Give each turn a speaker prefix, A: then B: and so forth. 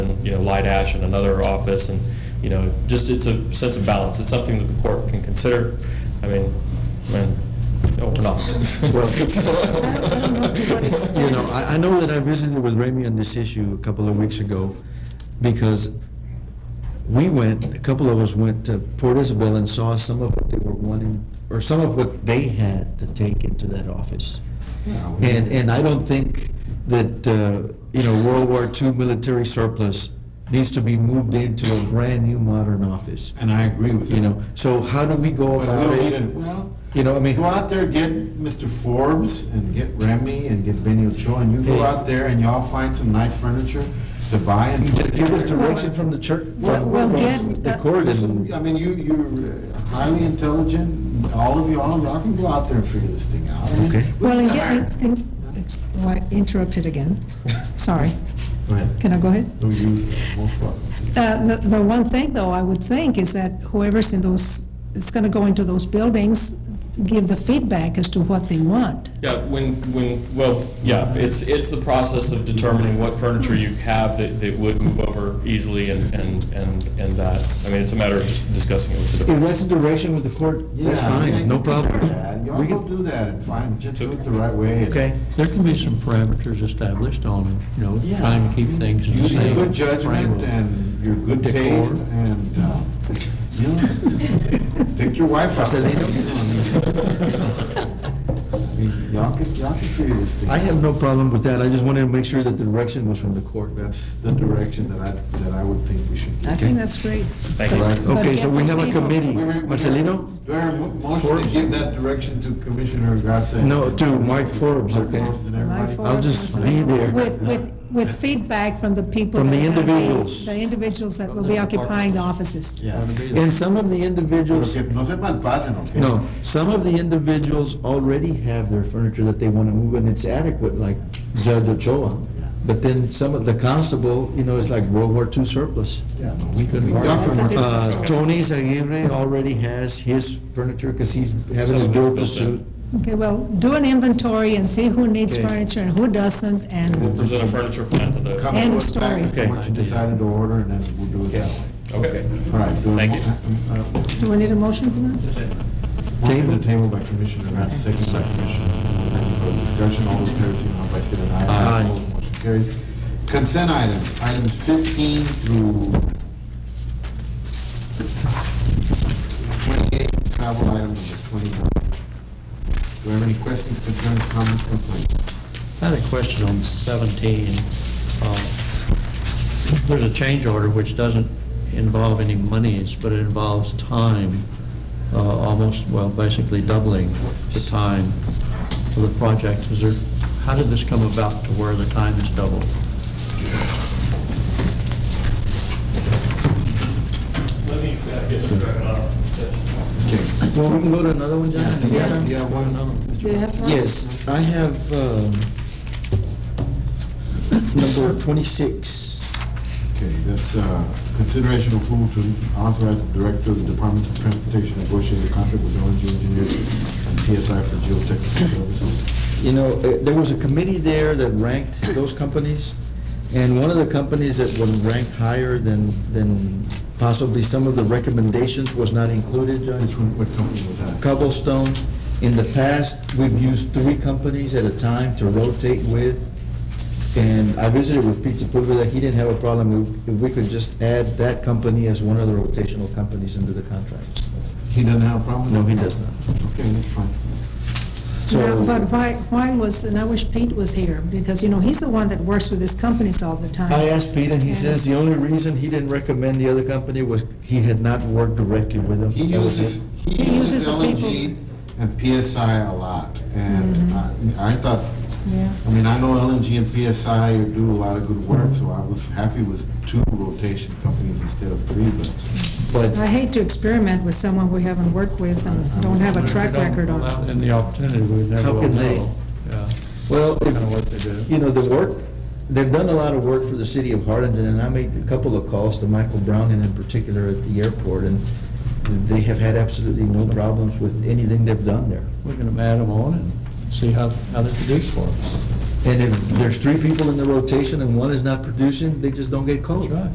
A: you know, light ash in another office, and, you know, just, it's a sense of balance. It's something that the court can consider. I mean, man, no, we're not.
B: Well-
C: You
B: You know, I, I know that I visited with Remy on this issue a couple of weeks ago, because we went, a couple of us went to Port Isabel and saw some of what they were wanting, or some of what they had to take into that office. And, and I don't think that, uh, you know, World War II military surplus needs to be moved into a brand-new modern office,
D: And I agree with you.
B: you know? So how do we go
D: Well,
B: about
D: we
B: it?
D: didn't- well,
B: You know, I mean.
D: go out there, get Mr. Forbes and get Remy and get Benny Ochoa, and you go out there and y'all find some nice furniture to buy and.
B: Just give us direction from the church,
D: Well,
B: from
D: well,
B: from
D: get-
B: the court
D: I
B: and,
D: mean, you, you're highly intelligent, all of y'all, y'all can go out there and figure this thing out. I mean,
B: Okay.
C: Well, and get- and- and- ex- oh, I interrupted again. Sorry.
D: Go ahead.
C: Can I go ahead?
D: No, you, uh, most welcome.
C: Uh, The the one thing, though, I would think is that whoever's in those, it's going to go into those buildings, give the feedback as to what they want.
A: Yeah, when, when, well, yeah, it's, it's the process of determining what furniture you have that, that would move over easily and, and, and and that. I mean, it's a matter of just discussing it with the
B: if
A: department.
B: that's the direction with the court,
D: Yeah,
B: that's fine, no
D: you can do that.
B: problem.
D: Y'all
B: We
D: go
B: can,
D: do that and find, just do it the right way.
B: okay,
E: There can be some parameters established on, you know,
D: Yeah.
E: trying to keep things in the
D: Use
E: same.
D: your good judgment
E: framework.
D: and your good
E: Decor.
D: taste and, uh, you know, take your wife out. I mean, Y'all can, y'all can figure this thing.
B: I
D: out.
B: have no problem with that, I just wanted to make sure that the direction was from the court.
D: That's the direction that I, that I would think we should.
C: I
B: Okay.
C: think that's great.
A: Thank you.
D: Right.
B: Okay, so we have a committee,
D: We- we- we-
B: Marcelino?
D: Do I have a mo- motion to give that direction to Commissioner Garcia?
B: No, to Mike Forbes,
D: Mike
B: okay.
D: Forbes and everybody?
C: Mike Forbes
B: just
C: and-
B: be there.
C: With, with, with feedback from the people.
B: From the
C: that are gonna be-
B: individuals.
C: The individuals that will be occupying the offices.
D: Yeah.
B: And some of the
D: Pero
B: individuals,
D: que no se malpasen, okay?
B: no, some of the individuals already have their furniture that they want to move and it's adequate, like Judge Ochoa. But then some of the constable, you know, it's like World War II surplus.
D: Yeah, no,
E: We could
D: Y'all
E: work.
C: That's a
D: can work.
C: different
B: Uh,
C: story.
B: Tony Aguirre already has his furniture because he's having
A: Some
B: a
A: of it's
B: build to
A: built
B: suit.
A: in.
C: Okay, well, do an inventory and see who needs
B: Okay.
C: furniture and who doesn't, and
A: Present a furniture plan to
D: Come
A: the,
D: to
C: End
D: us back
C: story.
D: if
B: Okay.
D: What you decided to order, and then we'll do it that way.
A: okay.
D: All right. do a
A: Thank
D: mo- uh,
C: do we need a motion for that?
D: uh, Motion
B: Table.
D: to table by Commissioner Garcia, second by Commissioner. Thank you for the discussion, all those in favor, signify by state and
B: Aye.
D: I. Opposed, Motion carries. Consent items, items fifteen through twenty-eight, travel item number twenty-one. Do we have any questions, concerns, comments, complaints?
E: I had a question on 17. Uh, There's a change order which doesn't involve any monies, but it involves time, uh, almost, well, basically doubling the time for the project. Is there, how did this come about to where the time is doubled?
A: uh,
B: Well, we can go to another one, John?
D: Yeah, yeah, one, Mr.
B: Yes, I have um, number 26.
D: Okay, that's uh, consideration of approval to authorize the director of the Department of Transportation to negotiate a contract with ONG Engineers and PSI for geotechnical services.
B: You know, uh, there was a committee there that ranked those companies, and one of the companies that was ranked higher than, than possibly some of the recommendations was not included, Judge.
D: Which one, what company was that?
B: cobblestone. In the past, we've used three companies at a time to rotate with. And I visited with Pete Sepulveda, he didn't have a problem if- if we could just add that company as one of the rotational companies into the contract.
D: He doesn't have a problem?
B: No, he does not.
D: Okay, that's fine.
C: Now,
B: So
C: But why, why was, and I wish Pete was here, because, you know, he's the one that works with his companies all the time.
B: I asked Pete, and he says the only reason he didn't recommend the other company was he had not worked directly with them.
D: He
B: That was
D: uses,
B: it.
D: he
C: He uses
D: uses
C: the
D: LNG
C: people.
D: and PSI a lot, and I I thought,
C: Yeah.
D: I mean, I know LNG and PSI do a lot of good work, so I was happy with two rotation companies instead of three, but
B: But
C: I hate to experiment with someone we haven't worked with and don't have a track record on.
E: In the opportunity, we never
B: How
E: will
B: can they-
E: know. Yeah.
B: Well, if-
E: Kinda what they do.
B: you know, the work, they've done a lot of work for the city of Hardingen, and I made a couple of calls to Michael Brown, and in particular at the airport, and they have had absolutely no problems with anything they've done there.
E: We're going to add them on and see how, how they produce for us.
B: And if there's three people in the rotation and one is not producing, they just don't get called.
E: That's right.